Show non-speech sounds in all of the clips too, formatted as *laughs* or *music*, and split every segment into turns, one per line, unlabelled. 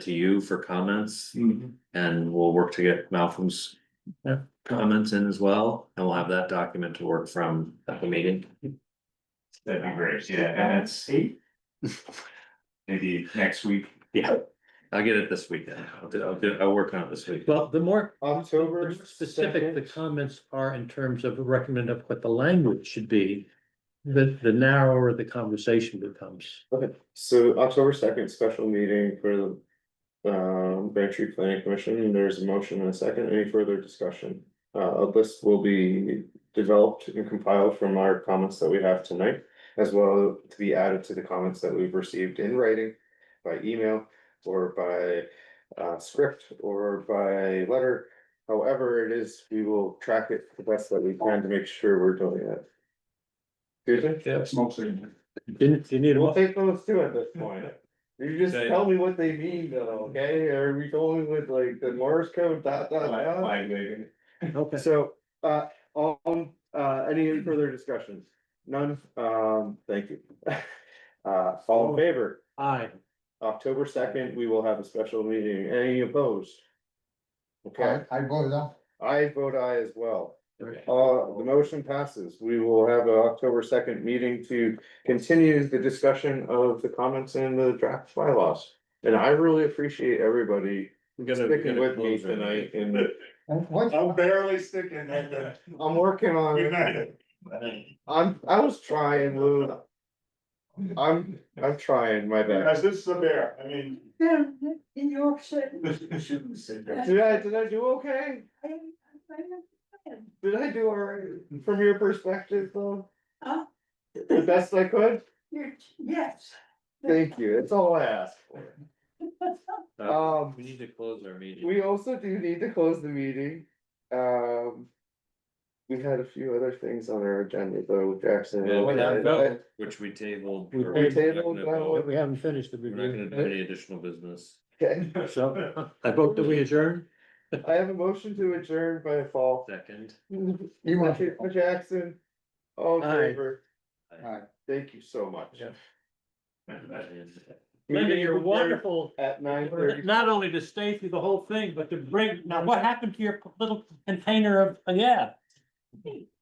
to you for comments
Mhm.
and we'll work to get Malcolm's comments in as well, and we'll have that document to work from at the meeting.
That'd be great, yeah, and it's maybe next week.
Yeah. I'll get it this weekend. I'll do, I'll do, I'll work on it this week.
Well, the more the
October
more specific the
second.
comments are in terms of recommend of what the language should be, the, the narrower the conversation becomes.
Okay, so October second, special meeting for the. Um, Braintree Planning Commission, there's a motion and a second, any further discussion? Uh, a list will be developed and compiled from our comments that we have tonight. As well to be added to the comments that we've received in writing by email or by uh script or by letter. However, it is, we will track it the best that we can to make sure we're doing it. Susan?
That's mostly.
Didn't, you need a,
We'll
mo-
take those two at this point. You just tell me what they mean though, okay? Are we going with like the Morse code dot dot dot?
Flag waving.
okay,
So, uh, on, uh, any further discussions? None, um, thank you. *laughs* Uh, all in favor,
aye.
October second, we will have a special meeting. Any opposed? Okay,
I voted no.
I vote aye as well.
Okay.
Uh, the motion passes. We will have an October second meeting to continue the discussion of the comments in the draft bylaws. And I really appreciate everybody
We gotta- we
sticking
gotta
with me
close it.
tonight and
And what-
I'm barely sticking at the.
I'm working on,
Good
it.
night.
I'm, I was trying, Lou. I'm, I'm trying my best.
Guys, this is a bear, I mean.
Yeah, in
*laughs*
Yorkshire.
Shouldn't sit there.
Did I, did I do okay?
I- I- I-
Did I do all right from your perspective though?
Huh?
The best I could?
You're, yes.
Thank you. It's all I ask for.
*laughs*
Uh,
Um.
We need to close our meeting.
We also do need to close the meeting. Um. We had a few other things on our agenda though, with Jackson.
Yeah, we
had both.
Which we tabled.
We
or we're not
tabled
gonna
that
vote.
one.
We haven't finished the
We're not gonna
review,
do any additional business.
Okay,
so I vote that we adjourn.
I have a motion to adjourn by fall.
Second.
You want-
Jackson. All in
Aye.
favor.
Aye.
Thank you so much.
Yeah.
And-
Linda,
Meeting
you're
adjourned
wonderful,
At nine thirty.
not only to stay through the whole thing, but to bring, now what happened to your little container of, oh, yeah,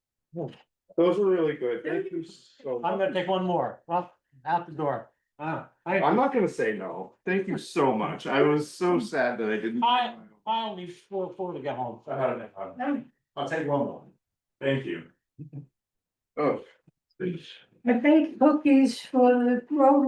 Those were really good. Thank you so
I'm gonna
much.
take one more, well, out the door. Ah, I-
I'm not gonna say no. Thank you so much. I was so sad that I didn't.
I- I'll leave four, four to get home.
No,
I'll take one more. Thank you.
Oh.
I baked cookies for the road